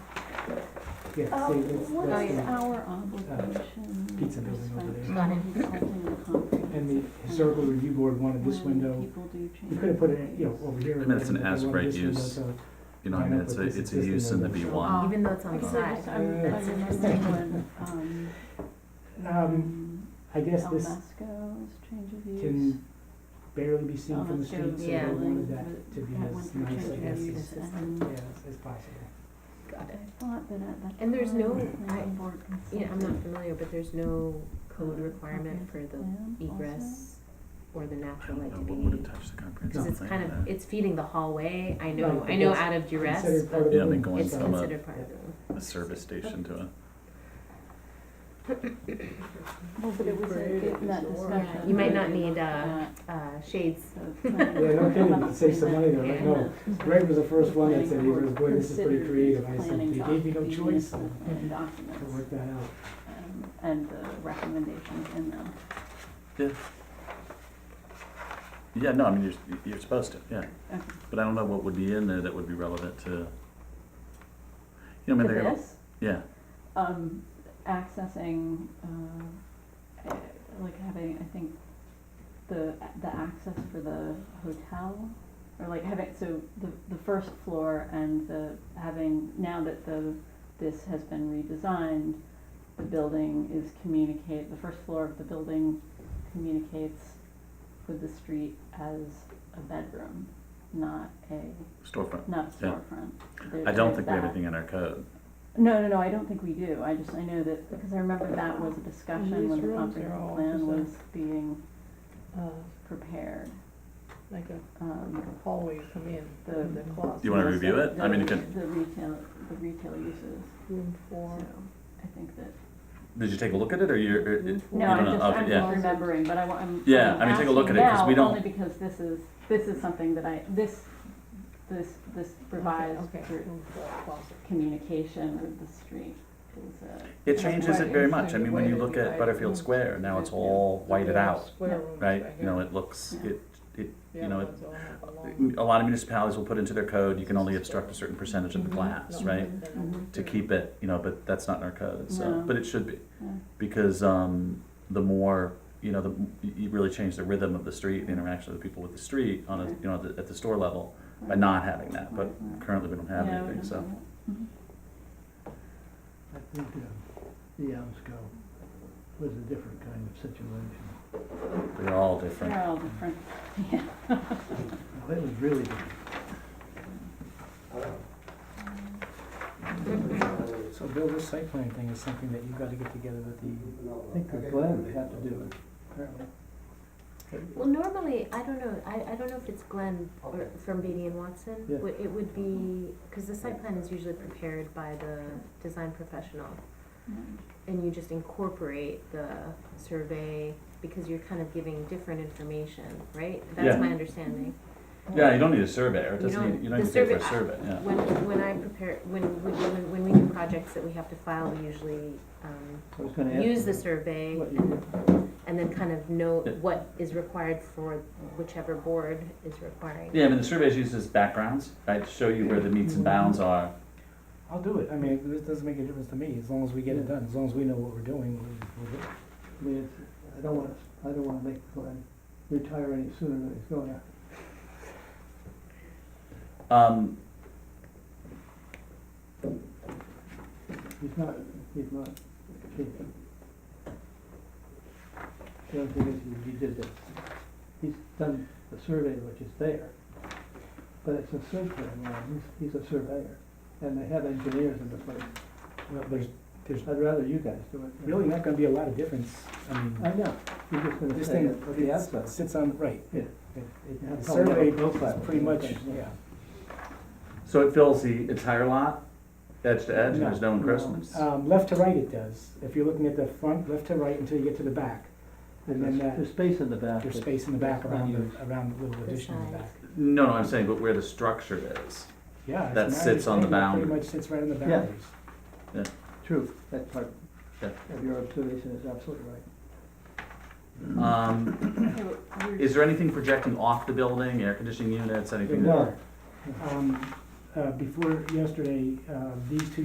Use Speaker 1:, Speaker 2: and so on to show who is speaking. Speaker 1: Yeah, see,
Speaker 2: Um,
Speaker 1: that's,
Speaker 2: What
Speaker 1: that's
Speaker 2: is
Speaker 1: the one.
Speaker 2: our obligation?
Speaker 1: uh, pizza building over there.
Speaker 3: Got it.
Speaker 1: And the historical review board wanted this window, you could have put it, you know, over here.
Speaker 4: I mean, it's an
Speaker 1: but they wanted
Speaker 4: as-right
Speaker 1: this window,
Speaker 4: use.
Speaker 1: so-
Speaker 4: You know, I mean, it's a, it's a use in the B
Speaker 2: Oh.
Speaker 4: one.
Speaker 3: Even though it's on the
Speaker 2: Because I just,
Speaker 3: side.
Speaker 2: I'm, I
Speaker 1: Yeah.
Speaker 2: remember when, um,
Speaker 1: Um,
Speaker 2: um,
Speaker 1: I guess
Speaker 2: El
Speaker 1: this
Speaker 2: Masco's change of use.
Speaker 1: can barely be seen
Speaker 2: El
Speaker 1: from the
Speaker 2: Masco's
Speaker 1: street, so they
Speaker 3: Yeah.
Speaker 1: wanted
Speaker 2: building
Speaker 1: that to
Speaker 2: with-
Speaker 1: be
Speaker 2: that went
Speaker 1: as
Speaker 2: for
Speaker 1: nice, I
Speaker 2: change of
Speaker 1: guess,
Speaker 2: use,
Speaker 3: as-
Speaker 2: and
Speaker 1: yeah, as- as possible.
Speaker 3: Got it.
Speaker 2: I thought that at that
Speaker 3: And there's
Speaker 2: time,
Speaker 3: no-
Speaker 2: the
Speaker 3: I-
Speaker 2: planning board
Speaker 3: Yeah, I'm
Speaker 2: considered
Speaker 3: not familiar, but there's no code
Speaker 2: Uh,
Speaker 3: requirement for the
Speaker 2: plan also.
Speaker 3: egress or the
Speaker 4: I
Speaker 3: natural
Speaker 4: don't
Speaker 3: light
Speaker 4: know
Speaker 3: to
Speaker 4: what would have
Speaker 3: be.
Speaker 4: touched the
Speaker 3: Cause
Speaker 4: comprehensive
Speaker 3: it's
Speaker 4: plan
Speaker 3: kind
Speaker 4: with
Speaker 3: of,
Speaker 4: that.
Speaker 3: it's feeding the hallway, I know,
Speaker 1: Right,
Speaker 3: I know
Speaker 1: it's
Speaker 3: out of duress,
Speaker 1: Considered part of
Speaker 3: but
Speaker 1: the
Speaker 4: Yeah, I
Speaker 1: building.
Speaker 4: mean, going
Speaker 3: it's
Speaker 4: from a-
Speaker 3: considered part of the room.
Speaker 4: A service station to a,
Speaker 2: Well, but it was in in that discussion.
Speaker 3: You might
Speaker 2: that
Speaker 3: not
Speaker 2: we
Speaker 3: need,
Speaker 2: looked
Speaker 3: uh,
Speaker 2: at
Speaker 3: Uh, shades,
Speaker 2: the planning
Speaker 1: Yeah, no
Speaker 2: board
Speaker 1: kidding, it saves some money though,
Speaker 2: and
Speaker 1: right? No,
Speaker 2: the-
Speaker 1: Greg was the first one that
Speaker 2: planning
Speaker 1: said, he
Speaker 2: board
Speaker 1: was, boy, this is pretty
Speaker 2: considered
Speaker 1: creative, I said,
Speaker 2: planning
Speaker 1: they gave me no
Speaker 2: doc-
Speaker 1: choice,
Speaker 2: the
Speaker 1: to
Speaker 2: planning documents,
Speaker 1: work that out.
Speaker 2: um, And the recommendations in them.
Speaker 4: yeah, no, I mean, you're, you're supposed to, yeah.
Speaker 2: Okay.
Speaker 4: But I don't know what would be in there that would be relevant to, you know, I
Speaker 2: To
Speaker 4: mean, they're,
Speaker 2: this,
Speaker 4: yeah,
Speaker 2: um, accessing, uh, eh, like having, I think, the, the access for the hotel, or like having, so the, the first floor and the, having, now that the, this has been redesigned, the building is communicate, the first floor of the building communicates with the street as a bedroom, not a,
Speaker 4: storefront.
Speaker 2: not
Speaker 4: Yeah.
Speaker 2: storefront. There-
Speaker 4: I don't
Speaker 2: there's
Speaker 4: think we have
Speaker 2: that.
Speaker 4: anything in our code.
Speaker 2: No, no, no, I don't think we do, I just, I know that, because I remember that was a discussion when the comprehensive plan was being prepared. uh, um, Like a hallway you come in, the, the closet.
Speaker 4: Do you wanna review it? I mean, you can-
Speaker 2: The retail, the retail uses, so, I think that,
Speaker 4: Did you take a look at it or you're, or it- you
Speaker 2: no,
Speaker 4: don't
Speaker 2: I'm
Speaker 4: know,
Speaker 2: just,
Speaker 4: okay,
Speaker 2: I'm
Speaker 4: yeah.
Speaker 2: just remembering, but I, wa- I'm.
Speaker 4: Yeah,
Speaker 2: I'm
Speaker 4: I mean, take a look at
Speaker 2: asking
Speaker 4: it, 'cause we
Speaker 2: now,
Speaker 4: don't-
Speaker 2: Only because this is, this is something that I, this, this, this revised re- communication with the street is uh, a.
Speaker 4: It changes it very much. I mean, when you look at Butterfield Square, now it's all whited out, right? You know, it looks,
Speaker 2: Yeah.
Speaker 4: it, it, you know, it- a lot of municipalities will put into their code, you can only obstruct a certain percentage of the glass, right?
Speaker 2: Mm-hmm.
Speaker 4: To keep it, you know, but that's not in our code, so,
Speaker 2: No.
Speaker 4: but it should be.
Speaker 2: Yeah.
Speaker 4: Because, um, the more, you know, the, you- you really change the rhythm of the street, the interaction of the people with the street on a, you know, at the- at the store level by not having that, but currently we don't have
Speaker 2: Yeah, we
Speaker 4: anything,
Speaker 2: don't Mm-hmm.
Speaker 4: so.
Speaker 2: have
Speaker 5: I think uh, the Amsco was a different kind of situation.
Speaker 4: They're all
Speaker 2: that.
Speaker 4: different.
Speaker 2: They're all different, yeah.
Speaker 5: Now, That was really different.
Speaker 1: So Bill, this site plan thing is something that you've got to get together with the,
Speaker 5: I think the Glen had to do it, apparently.
Speaker 3: Well, normally, I don't know, I, I don't know if it's Glenn or from Beatty and Watson.
Speaker 5: Yeah.
Speaker 3: Would- It would be, because the site plan is usually prepared by the design professional. And you just incorporate the survey because you're kind of giving different information, right? That's
Speaker 4: Yeah.
Speaker 3: my understanding.
Speaker 4: Yeah, you don't need a survey, or it
Speaker 3: You
Speaker 4: doesn't,
Speaker 3: don't-
Speaker 4: need- you don't
Speaker 3: the
Speaker 4: need to pay for a
Speaker 3: survey-
Speaker 4: survey, yeah.
Speaker 3: When, when I prepare, when, we- when, when we do projects that we have to file, we usually, um,
Speaker 5: I was gonna ask.
Speaker 3: use the
Speaker 5: you
Speaker 3: survey
Speaker 5: What you did.
Speaker 3: and then kind of note
Speaker 4: Yeah.
Speaker 3: what is required for whichever board is requiring.
Speaker 4: Yeah, I mean, the survey is used as backgrounds, right, to show you where the meets and bounds are.
Speaker 1: I'll do it, I mean, it doesn't make a difference to me, as long as we get it done, as long as we know what we're doing, we'll, we'll do it.
Speaker 5: I mean, it's, I don't wanna, I don't wanna make the Glen retire any sooner than he's going to.
Speaker 4: Um,
Speaker 5: He's not, he's not changing. The only thing is, he- he did this. He's done the survey, which is there, but it's a site plan, now. he's, he's a surveyor, and they have engineers in the place.
Speaker 1: Well, there's, there's
Speaker 5: I'd rather you guys do it.
Speaker 1: really not gonna be a lot of difference, I mean.
Speaker 5: I know, you're just gonna
Speaker 1: This
Speaker 5: say
Speaker 1: thing,
Speaker 5: it at the
Speaker 1: it
Speaker 5: outset.
Speaker 1: sits on, right.
Speaker 5: Yeah.
Speaker 1: It- it-
Speaker 5: You have
Speaker 1: The
Speaker 5: to tell me
Speaker 1: survey
Speaker 5: about the
Speaker 1: is
Speaker 5: profile.
Speaker 1: pretty much,
Speaker 5: Okay.
Speaker 1: yeah.
Speaker 4: so it fills the entire lot, edge to edge, and there's no
Speaker 1: No,
Speaker 4: encroachments?
Speaker 1: Um, left to right it does, if you're looking at the front, left to right until you get to the back, and then that,
Speaker 5: There's space in the back.
Speaker 1: there's
Speaker 5: that-
Speaker 1: space in the back
Speaker 5: that's
Speaker 1: around
Speaker 5: unused.
Speaker 1: the, around the little
Speaker 3: The
Speaker 1: addition in the
Speaker 3: sides.
Speaker 1: back.
Speaker 4: No, no, I'm saying, but where the structure is.
Speaker 1: Yeah. it's
Speaker 4: That
Speaker 1: my
Speaker 4: sits on the
Speaker 1: understanding
Speaker 4: boundary.
Speaker 1: It pretty much sits right on the
Speaker 5: Yeah.
Speaker 1: boundaries.
Speaker 5: True, that part
Speaker 4: Yeah.
Speaker 5: of your observation is absolutely right.
Speaker 4: Um,
Speaker 2: Okay, but we're-
Speaker 4: is there anything projecting off the building, air conditioning units, anything?
Speaker 1: There
Speaker 4: that-
Speaker 5: No.
Speaker 1: are. Um, uh, before yesterday, uh, these two